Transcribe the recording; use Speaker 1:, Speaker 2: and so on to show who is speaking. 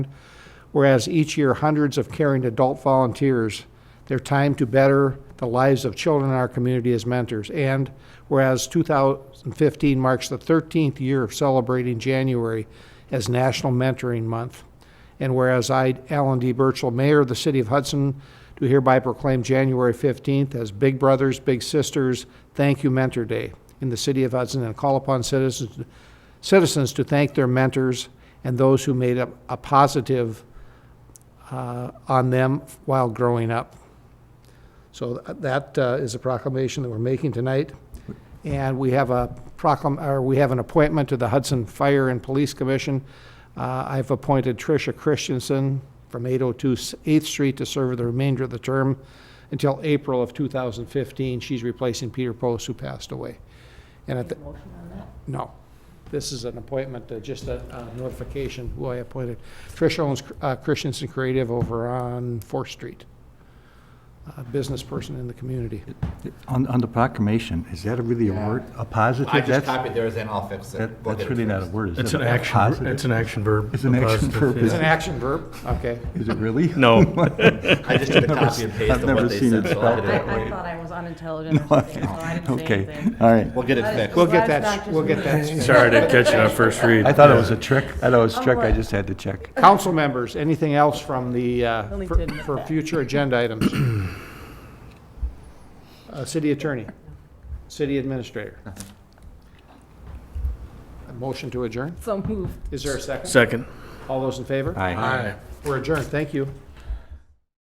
Speaker 1: Whereas each year, hundreds of caring adult volunteers their time to better the lives of children in our community as mentors. And whereas 2015 marks the 13th year of celebrating January as National Mentoring Month. And whereas I, Alan D. Burchell, Mayor of the City of Hudson, do hereby proclaim January 15th as Big Brothers, Big Sisters Thank You Mentor Day in the City of Hudson and call upon citizens, citizens to thank their mentors and those who made a, a positive uh, on them while growing up. So th- that uh, is a proclamation that we're making tonight. And we have a proclam, or we have an appointment to the Hudson Fire and Police Commission. Uh, I've appointed Tricia Christensen from 802 S- 8th Street to serve the remainder of the term until April of 2015. She's replacing Peter Post, who passed away. And at the, no. This is an appointment, uh, just a uh, notification who I appointed. Trish owns uh, Christensen Creative over on Fourth Street. A business person in the community.
Speaker 2: On, on the proclamation, is that really a word, a positive?
Speaker 3: I just
Speaker 2: That's-
Speaker 3: copied theirs and I'll fix it.
Speaker 2: that-
Speaker 3: We'll
Speaker 2: That's
Speaker 3: get it
Speaker 2: really not a
Speaker 3: fixed.
Speaker 2: word, is it?
Speaker 4: It's an
Speaker 2: A
Speaker 4: action,
Speaker 2: positive?
Speaker 4: it's an action verb.
Speaker 2: It's an
Speaker 4: a
Speaker 2: action
Speaker 4: positive,
Speaker 2: verb,
Speaker 4: yeah.
Speaker 1: It's an action verb, okay.
Speaker 2: Is it really?
Speaker 4: No,
Speaker 3: I just did a copy and paste
Speaker 2: I've
Speaker 3: of what
Speaker 2: never
Speaker 3: they
Speaker 2: seen
Speaker 3: said,
Speaker 2: it
Speaker 3: so I'll
Speaker 2: spelled
Speaker 3: get
Speaker 5: I,
Speaker 3: it
Speaker 5: I
Speaker 3: right.
Speaker 5: thought I was unintelligent or something, so I didn't say
Speaker 2: Okay,
Speaker 5: anything.
Speaker 2: all right.
Speaker 3: We'll get it
Speaker 5: That is-
Speaker 3: fixed.
Speaker 1: We'll get
Speaker 5: Glad it's not
Speaker 1: that,
Speaker 5: just
Speaker 1: we'll get
Speaker 5: me.
Speaker 1: that.
Speaker 4: sorry, I didn't catch it on first read.
Speaker 2: I thought it was a trick, I thought it was a trick, I
Speaker 5: right.
Speaker 2: just had to check.
Speaker 1: Council members, anything else from the, uh,
Speaker 5: Only
Speaker 1: for-
Speaker 5: tidbit.
Speaker 1: for future agenda items? Uh, City attorney, city administrator. A motion to adjourn?
Speaker 5: So moved.
Speaker 1: Is there a second?
Speaker 4: Second.
Speaker 1: All those in favor?
Speaker 2: Aye.
Speaker 1: We're adjourned, thank you.